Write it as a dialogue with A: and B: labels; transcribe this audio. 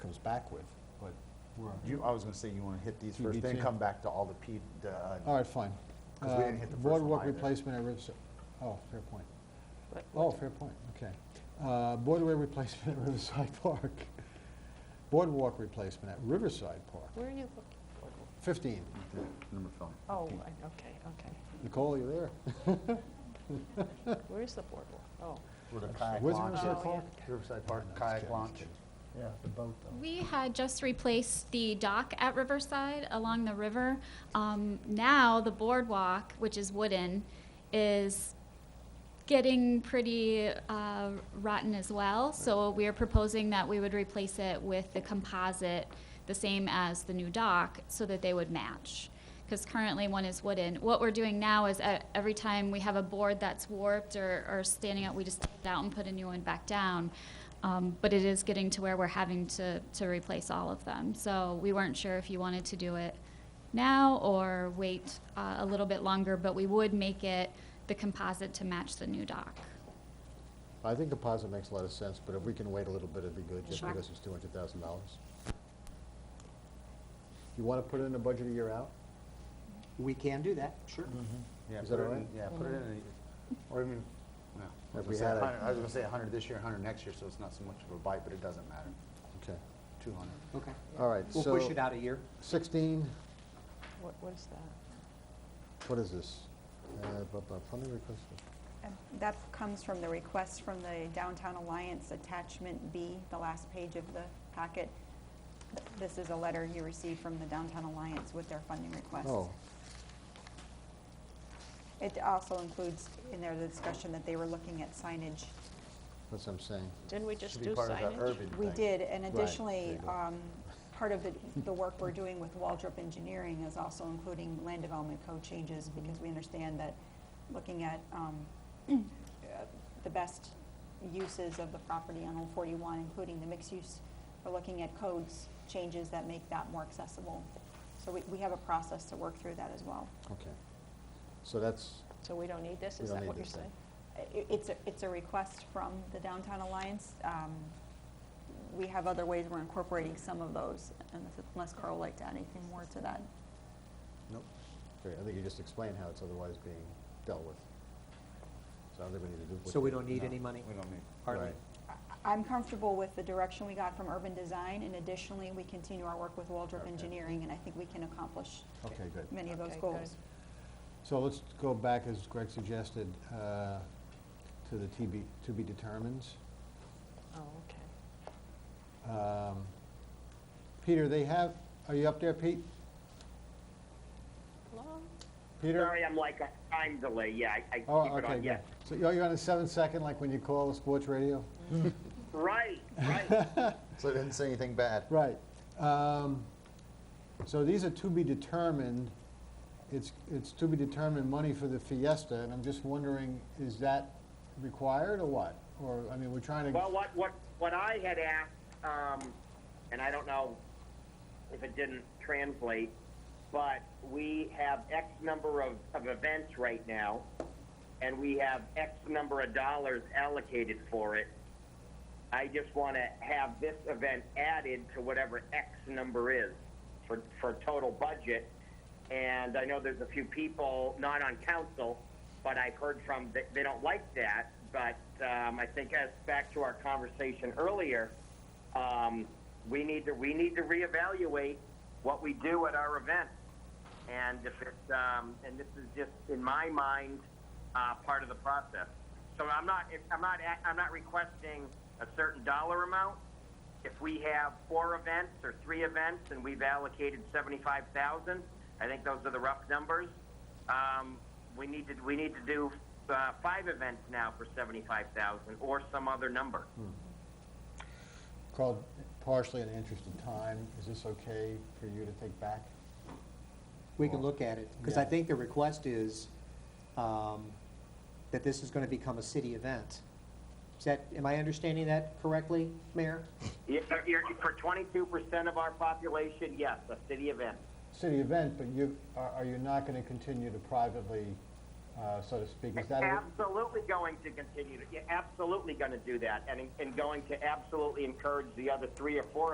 A: back with, but
B: Right.
A: you, I was gonna say you wanna hit these
B: You
A: first,
B: beat
A: then
B: me.
A: come back to all the P, the, uh,
B: All right, fine.
A: 'Cause we didn't hit the
B: Uh,
A: first one
B: Boardwalk
A: either.
B: replacement at Riverside, oh, fair point.
C: What-
B: Oh, fair point, okay. Uh, Boardwalk replacement at Riverside Park. Boardwalk replacement at Riverside Park.
C: Where are you looking?
B: 15.
A: the number film.
C: Oh, I- okay, okay.
B: Nicole, you there?
C: Where is the boardwalk? Oh.
A: With a kayak
B: Where's
A: launch.
B: Riverside
C: Oh,
B: Park?
A: Riverside Park
B: No, just
A: kayak
B: kidding, just
A: launch.
B: kidding.
D: Yeah, the boat though.
E: We had just replaced the dock at Riverside along the river. Um, now the boardwalk, which is wooden, is getting pretty uh, rotten as well. So we are proposing that we would replace it with the composite, the same as the new dock, so that they would match. Because currently one is wooden. What we're doing now is uh, every time we have a board that's warped or, or standing out, we just take it out and put a new one back down. Um, but it is getting to where we're having to, to replace all of them. So we weren't sure if you wanted to do it now or wait uh, a little bit longer, but we would make it the composite to match the new dock.
B: I think composite makes a lot of sense, but if we can wait a little bit, it'd be good, just
E: Sure.
B: because it's $200,000. You want to put it in a budget a year out? Mm-hmm.
D: We can do that, sure.
A: Yeah,
B: Is
A: put
B: that
A: it
B: all
A: in,
B: right?
A: yeah, put it in, a- or even, no. I
B: If
A: was
B: we
A: gonna say
B: had a-
A: 100 I was gonna say hundred this year, hundred next year, so it's not so much of a bite, but it doesn't matter.
B: Okay,
A: Two hundred.
D: Okay.
B: all right,
D: We'll push
B: so
D: it out a year.
B: 16,
C: What, what is that?
B: what is this? Uh, bu- bu- Plumbing replacement.
F: And That comes from the request from the Downtown Alliance Attachment B, the last page of the packet. This is a letter you received from the Downtown Alliance with their funding request.
B: Oh,
F: It also includes in there the discussion that they were looking at signage.
B: that's what I'm saying.
C: Didn't we just
A: Should be
C: do
A: part of that
C: signage?
A: urban
F: We
A: thing.
F: did, and
B: Right, there
F: additionally,
B: you go.
F: um, part of the, the work we're doing with Waldrop Engineering is also including land development code changes, because we understand that looking at, um, uh, the best uses of the property on Old Forty-One, including the mixed use, we're looking at codes changes that make that more accessible. So we, we have a process to work through that as well.
B: Okay. So that's,
C: So we don't need this?
B: We
C: Is
B: don't
C: that
B: need
C: what you're
B: this thing.
C: saying?
F: I- It's, a- it's a request from the Downtown Alliance. Um, We have other ways we're incorporating some of those, and if- unless Carl would like to add anything more to that.
B: nope. Great, I think you just explained how it's otherwise being dealt with. So I don't think we need to do.
D: So we don't need
A: No,
D: any money?
A: We don't need.
D: Hardly.
B: Right.
F: I- I'm comfortable with the direction we got from urban design, and additionally, we continue our work with Waldrop
A: Okay.
F: Engineering, and I think we can accomplish
B: Okay, good.
F: many of those
C: Okay, good.
F: goals.
B: So let's go back, as Greg suggested, uh, to the TB, to be determines.
C: Oh, okay.
B: Um, Peter, they have, are you up there, Pete?
C: Hello?
B: Peter?
G: Sorry, I'm like a time delay. Yeah, I, I
B: Oh,
G: keep it
B: okay,
G: on.
B: good.
G: Yeah,
B: So you're you're on a seven second, like when you call sports radio?
G: right, right.
A: So it didn't say anything bad.
B: Right. Um, So these are to be determined. It's, it's to be determined money for the Fiesta, and I'm just wondering, is that required or what? Or, I mean, we're trying to,
G: well, what what what I had asked, um, and I don't know if it didn't translate, but we have X number of, of events right now, and we have X number of dollars allocated for it. I just want to have this event added to whatever X number is for, for total budget. And I know there's a few people not on council, but I've heard from that they don't like that. But um, I think as back to our conversation earlier, um, we need to we need to reevaluate what we do at our events. And if it's um, and this is just in my mind uh, part of the process. So I'm not if- I'm not a- I'm not requesting a certain dollar amount. If we have four events or three events and we've allocated seventy-five thousand, I think those are the rough numbers. Um, we need to we need to do uh, five events now for seventy-five thousand or some other number.
B: called partially in the interest of time. Is this okay for you to take back?
D: We can look at it, because I
B: Yeah.
D: think the request is um, that this is going to become a city event. Is that, am I understanding that correctly, Mayor?
G: Yeah, you're- for twenty-two percent of our population, yes, a city event.
B: City event, but you, are are you not going to continue to privately, uh, so to speak? Is that, a-
G: Absolutely going to continue to, yeah, absolutely going to do that, and and going to absolutely encourage the other three or four